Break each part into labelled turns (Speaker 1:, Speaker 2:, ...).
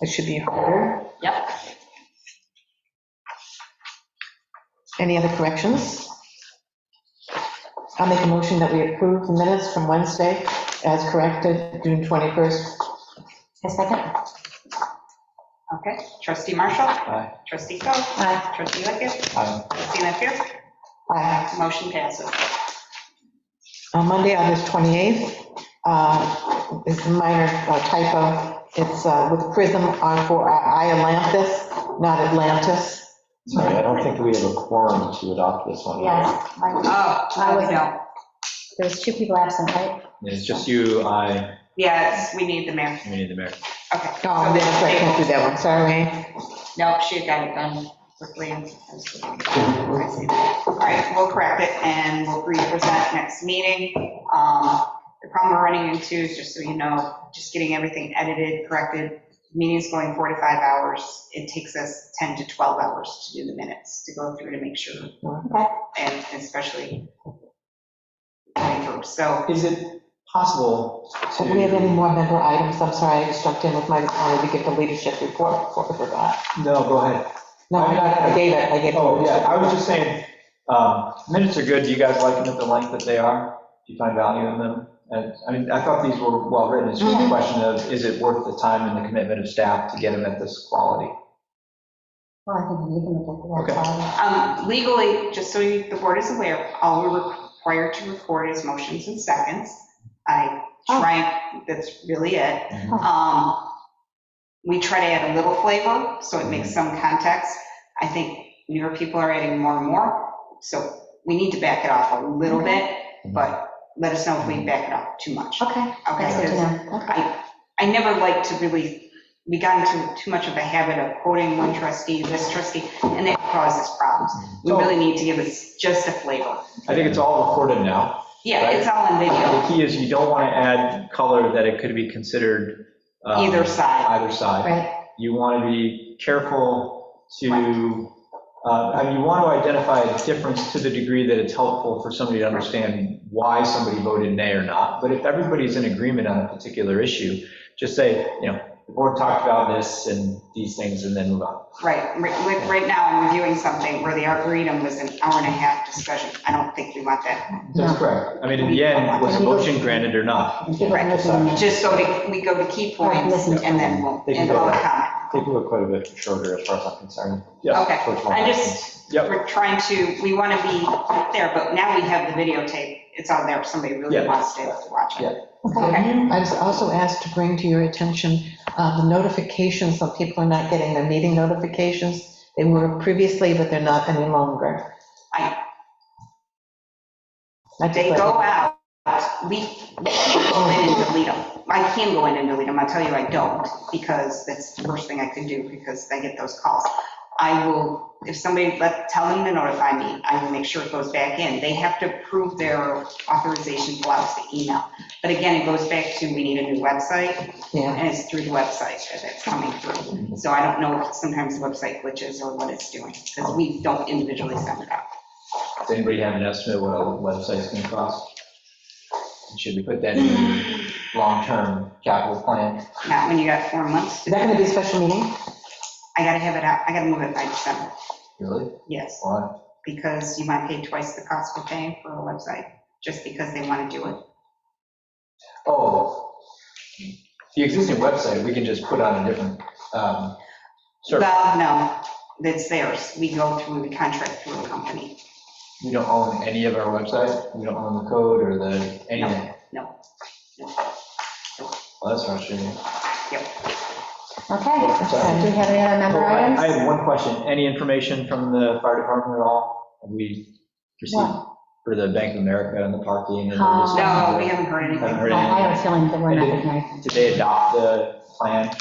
Speaker 1: It should be heard.
Speaker 2: Yep.
Speaker 1: Any other corrections? I'll make a motion that we approve the minutes from Wednesday as corrected, June 21st.
Speaker 2: A second. Okay, trustee Marshall?
Speaker 3: Aye.
Speaker 2: Trustee Coe?
Speaker 1: Aye.
Speaker 2: Trustee Lickett?
Speaker 3: Aye.
Speaker 2: Trustee Lanfair?
Speaker 1: Aye.
Speaker 2: Motion passes.
Speaker 1: On Monday, August 28th, uh, it's a minor uh, typo. It's uh, with prism on for Atlantis, not Atlantis.
Speaker 3: Sorry, I don't think we have a quorum to adopt this one.
Speaker 4: Yes, I-
Speaker 2: Oh,
Speaker 4: I was-
Speaker 2: no.
Speaker 4: there's two people absent, right?
Speaker 3: It's just you, I,
Speaker 2: Yes, we need the mayor.
Speaker 3: and we need the mayor.
Speaker 2: Okay.
Speaker 1: Oh, that's right, can't do that one, sorry.
Speaker 2: Nope, she got it done quickly. I see that. All right, we'll correct it and we'll re-present next meeting. Um, The problem we're running into is, just so you know, just getting everything edited, corrected, meeting's going four to five hours. It takes us 10 to 12 hours to do the minutes, to go through to make sure.
Speaker 1: Okay.
Speaker 2: And especially going through, so,
Speaker 3: Is it possible to?
Speaker 1: Do we have any more member items? I'm sorry, I just jumped in with my, I wanted to get the leadership report before I forgot.
Speaker 3: No, go ahead.
Speaker 1: No, I got it, I gave it, I gave it.
Speaker 3: Oh, yeah, I was just saying, um, minutes are good, do you guys like them at the length that they are? Do you find value in them? And, I mean, I thought these were well-written, it's just a
Speaker 1: Mhm.
Speaker 3: question of, is it worth the time and the commitment of staff to get them at this quality?
Speaker 4: Well, I think you can look at
Speaker 3: Okay.
Speaker 4: that. file.
Speaker 2: um, legally, just so you- the board is aware, all we're required to record is motions and seconds. I
Speaker 4: Oh.
Speaker 2: try, that's really it.
Speaker 3: Mhm.
Speaker 2: Um, We try to add a little flavor, so it makes some context. I think newer people are adding more and more, so we need to back it off a little bit, but let us know if we back it off too much.
Speaker 4: Okay,
Speaker 2: Okay,
Speaker 4: that's good to
Speaker 2: 'cause
Speaker 4: know. Okay.
Speaker 2: I, I never like to really, we got into too much of a habit of quoting one trustee, this trustee, and that causes problems. We
Speaker 3: So-
Speaker 2: really need to give us just a flavor.
Speaker 3: I think it's all recorded now.
Speaker 2: Yeah, it's all in video,
Speaker 3: The key is you don't want to add color that it could be considered. um,
Speaker 2: either side.
Speaker 3: Either side.
Speaker 4: Right,
Speaker 3: You want to be careful to, uh, I mean, you want to identify a difference to the degree that it's helpful for somebody to understand why somebody voted nay or not. But if everybody's in agreement on a particular issue, just say, you know, the board talked about this and these things, and then move on.
Speaker 2: Right, right- like, right now, I'm reviewing something where the arboretum was an hour and a half discussion. I don't think we want that.
Speaker 3: That's correct. I mean, in the end, was a motion granted or not?
Speaker 4: and people
Speaker 2: Right.
Speaker 4: listening in.
Speaker 2: Just so we- we go to key points and then we'll,
Speaker 3: They can
Speaker 2: and
Speaker 3: go
Speaker 2: we'll
Speaker 3: there.
Speaker 2: comment.
Speaker 3: They do it quite a bit shorter as far as I'm concerned. Yes,
Speaker 2: Okay,
Speaker 3: towards my
Speaker 2: I
Speaker 3: options.
Speaker 2: just,
Speaker 3: Yep.
Speaker 2: we're trying to, we want to be there, but now we have the videotape. It's on there if somebody really
Speaker 3: Yeah.
Speaker 2: wants to watch
Speaker 3: Yeah.
Speaker 2: it.
Speaker 1: Okay. I was also asked to bring to your attention uh, the notifications, some people are not getting their meeting notifications. They were previously, but they're not any longer.
Speaker 2: I-
Speaker 1: I just
Speaker 2: They
Speaker 1: let-
Speaker 2: go out, we, we can't go in and delete them. I can go in and delete them, I tell you I don't, because that's the worst thing I could do, because I get those calls. I will, if somebody, let, tell them to notify me, I will make sure it goes back in. They have to prove their authorization blocks the email. But again, it goes back to, we need a new website,
Speaker 1: Yeah.
Speaker 2: and it's through the website that it's coming through. So I don't know if sometimes the website glitches or what it's doing, because we don't individually send it out.
Speaker 3: Does anybody have an estimate what a website's gonna cost? And Should we put that in the long-term capital plan?
Speaker 2: Not when you got four months to
Speaker 1: Is that going to be a special meeting?
Speaker 2: I gotta have it out, I gotta move it by December,
Speaker 3: Really?
Speaker 2: yes,
Speaker 3: Why?
Speaker 2: because you might pay twice the cost we're paying for a website, just because they wanna do it.
Speaker 3: Oh, the existing website, we can just put on a different, um, service.
Speaker 2: Well, no, that's theirs, we go through the contract through a company.
Speaker 3: We don't own any of our website, we don't own the code or the, anything.
Speaker 2: no, no.
Speaker 3: Well, that's frustrating.
Speaker 4: Okay,
Speaker 3: Sorry.
Speaker 4: do we have any other member
Speaker 3: Oh, I I
Speaker 4: items?
Speaker 3: have one question. Any information from the fire department at all? Have we received for the Bank of America and the parking and the
Speaker 4: Uh,
Speaker 3: discussions?
Speaker 2: Um, No, we haven't heard
Speaker 3: Haven't
Speaker 2: anything,
Speaker 3: heard
Speaker 4: I I
Speaker 3: anything?
Speaker 4: have a feeling that we're not
Speaker 3: I
Speaker 4: going
Speaker 3: did.
Speaker 4: to anything.
Speaker 3: Did they adopt the plan?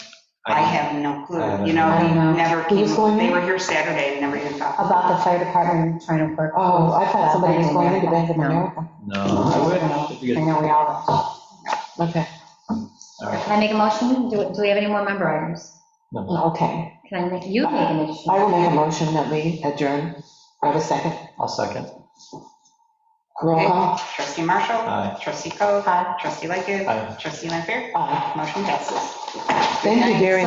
Speaker 2: I have no clue, you
Speaker 4: I don't
Speaker 2: know,
Speaker 4: know.
Speaker 2: we never
Speaker 1: Who
Speaker 2: came,
Speaker 1: was going
Speaker 2: they
Speaker 1: in?
Speaker 2: were here Saturday and never even talked.
Speaker 4: About the fire department trying to work.
Speaker 1: Oh, I
Speaker 4: with,
Speaker 1: thought
Speaker 4: uh,
Speaker 1: somebody was
Speaker 4: Bank of
Speaker 1: going into Bank
Speaker 4: America.
Speaker 1: of
Speaker 4: No.
Speaker 1: America.
Speaker 3: No, I wouldn't. If you
Speaker 4: I
Speaker 3: could-
Speaker 4: know we all are.
Speaker 1: Okay,
Speaker 3: all right.
Speaker 4: Can I make a motion? Do do we have any more member items?
Speaker 1: okay.
Speaker 4: Can I make, you make a motion?
Speaker 1: I will make a motion that we adjourn. I have a second.
Speaker 3: I'll second.
Speaker 1: Roll call.
Speaker 2: Trustee Marshall,
Speaker 3: Aye.
Speaker 2: trustee Coe,
Speaker 4: Aye.
Speaker 2: trustee Lightgev,
Speaker 3: Aye.
Speaker 2: trustee Lanfair,
Speaker 1: Aye.
Speaker 2: motion passes.
Speaker 1: Thank you, Gary.